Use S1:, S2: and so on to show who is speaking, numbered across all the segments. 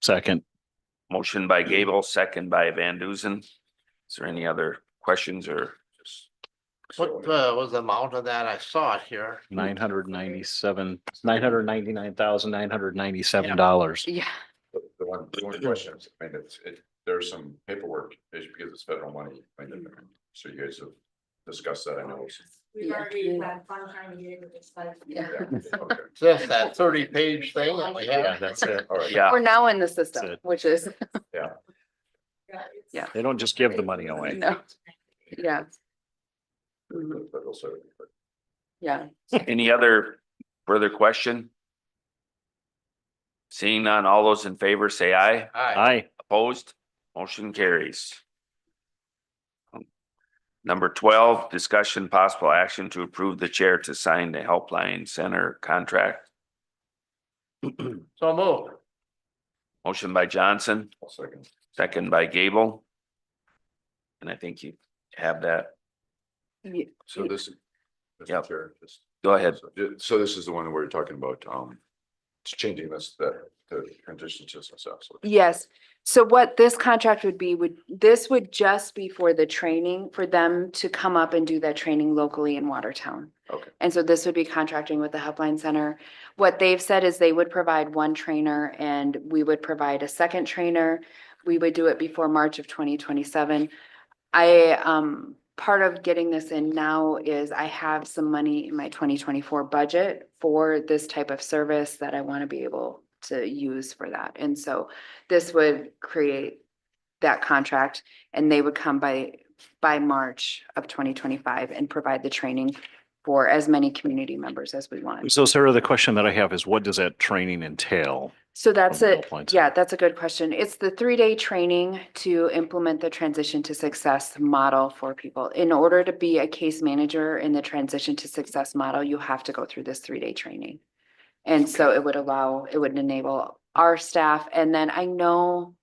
S1: Second.
S2: Motion
S3: Mm-hmm.
S2: by Gable, second by Van Duzen. Is there any other questions or?
S4: What uh, was the amount of that? I saw it here.
S1: Nine hundred ninety-seven, nine hundred ninety-nine thousand, nine hundred ninety-seven dollars.
S5: Yeah,
S3: The the one, the one question is, I mean, it's, it, there's some paperwork issue because it's federal money. I mean, So you guys have discussed that, I know.
S6: We've
S5: Yeah.
S6: already had fun trying to get it, it's like.
S5: Yeah.
S3: Yeah, okay.
S4: It's Just that thirty page thing that we
S1: Yeah,
S4: have.
S1: that's it.
S3: All right.
S2: Yeah,
S5: we're now in the
S1: That's
S5: system,
S1: it.
S5: which is,
S6: Yeah, it's-
S5: Yeah.
S1: They don't just give the money away.
S5: no, yeah. Mhm,
S3: The federal side, but
S5: Yeah,
S2: any other further question? Seeing none, all those in favor say aye.
S4: Aye.
S1: Aye.
S2: Opposed, motion carries. Number twelve, discussion possible action to approve the chair to sign the helpline center contract.
S4: So move.
S2: Motion by Johnson,
S3: I'll second.
S2: second by Gable. And I think you have that.
S5: Ye-
S3: So this. Mr.
S2: Yep.
S3: Chair, just-
S2: Go ahead.
S3: So- So this is the one we're talking about, um, changing this, that, the transition to success.
S5: yes. So what this contract would be, would, this would just be for the training, for them to come up and do that training locally in Watertown.
S3: Okay.
S5: And so this would be contracting with the Helpline Center. What they've said is they would provide one trainer and we would provide a second trainer. We would do it before March of twenty twenty-seven. I, um, part of getting this in now is I have some money in my twenty twenty-four budget for this type of service that I want to be able to use for that. And so this would create that contract and they would come by, by March of twenty twenty-five and provide the training for as many community members as we want.
S1: So Sarah, the question that I have is what does that training entail?
S5: So that's
S1: From
S5: a,
S1: Helpline
S5: yeah,
S1: Center.
S5: that's a good question. It's the three-day training to implement the transition to success model for people. In order to be a case manager in the transition to success model, you have to go through this three-day training. And so it would allow, it would enable our staff. And then I know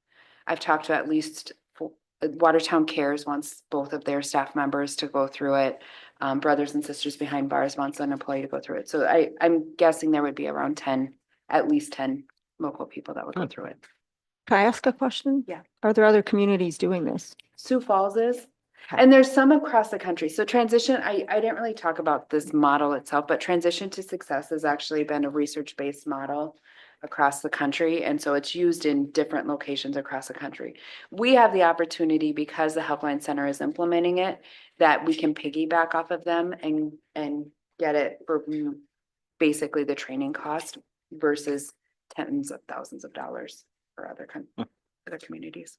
S5: I've talked to at least four- Watertown Cares wants both of their staff members to go through it. Um, Brothers and Sisters Behind Bars wants an employee to go through it. So I, I'm guessing there would be around ten, at least ten local people that would go
S1: Good.
S5: through it.
S7: Can I ask a question?
S5: Yeah.
S7: Are there other communities doing this?
S5: Sioux Falls is,
S7: Okay.
S5: and there's some across the country. So transition, I, I didn't really talk about this model itself, but transition to success has actually been a research-based model across the country, and so it's used in different locations across the country. We have the opportunity, because the Helpline Center is implementing it, that we can piggyback off of them and, and get it for mm, basically the training cost versus tens of thousands of dollars for other, coun-
S1: Hmm.
S5: other communities.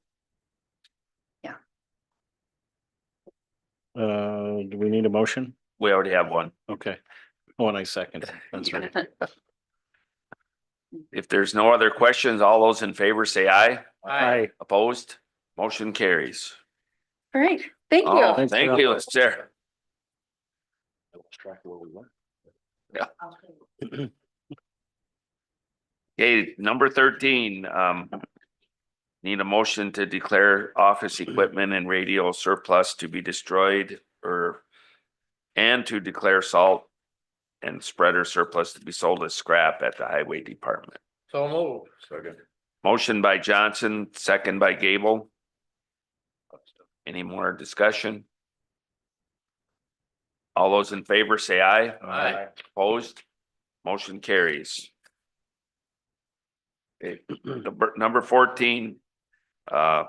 S1: Uh, do we need a motion?
S2: We already have one.
S1: Okay. Oh, and I second. it. That's right.
S2: If there's no other questions, all those in favor say aye.
S1: Aye.
S2: Opposed, motion carries.
S5: All right, thank
S2: Oh,
S5: you.
S1: Thanks,
S2: Thank
S1: Bill.
S2: you, Sarah.
S6: Okay.
S2: Okay, number thirteen, um. Need a motion to declare office equipment and radio surplus to be destroyed or. And to declare salt and spreader surplus to be sold as scrap at the highway department.
S4: So move.
S3: Second.
S2: Motion by Johnson, second by Gable. Any more discussion? All those in favor say aye.
S4: Aye.
S2: Opposed? Motion carries. Okay, number, number fourteen. Uh,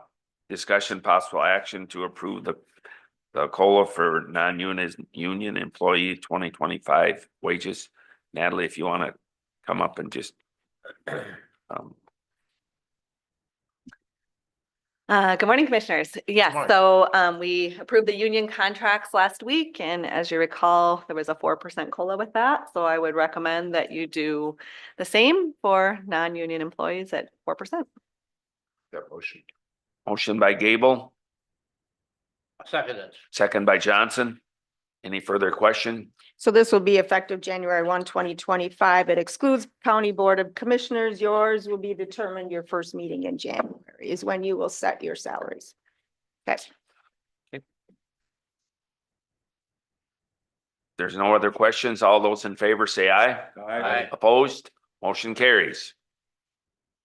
S2: discussion possible action to approve the, the COLA for non-union, union employee twenty twenty-five wages. Natalie, if you wanna come up and just. Um,
S8: Uh, good morning, commissioners. Yes,
S4: morning.
S8: so, um, we approved the union contracts last week and as you recall, there was a four percent COLA with that. So I would recommend that you do the same for non-union employees at four percent.
S3: That motion.
S2: motion by Gable.
S4: Second it.
S2: Second by Johnson. Any further question?
S7: So this will be effective January 1, 2025. It excludes County Board of Commissioners. Yours will be determined your first meeting in January is when you will set your salaries. Okay.
S2: There's no other questions. All those in favor say aye.
S4: Aye.
S2: Opposed? Motion carries.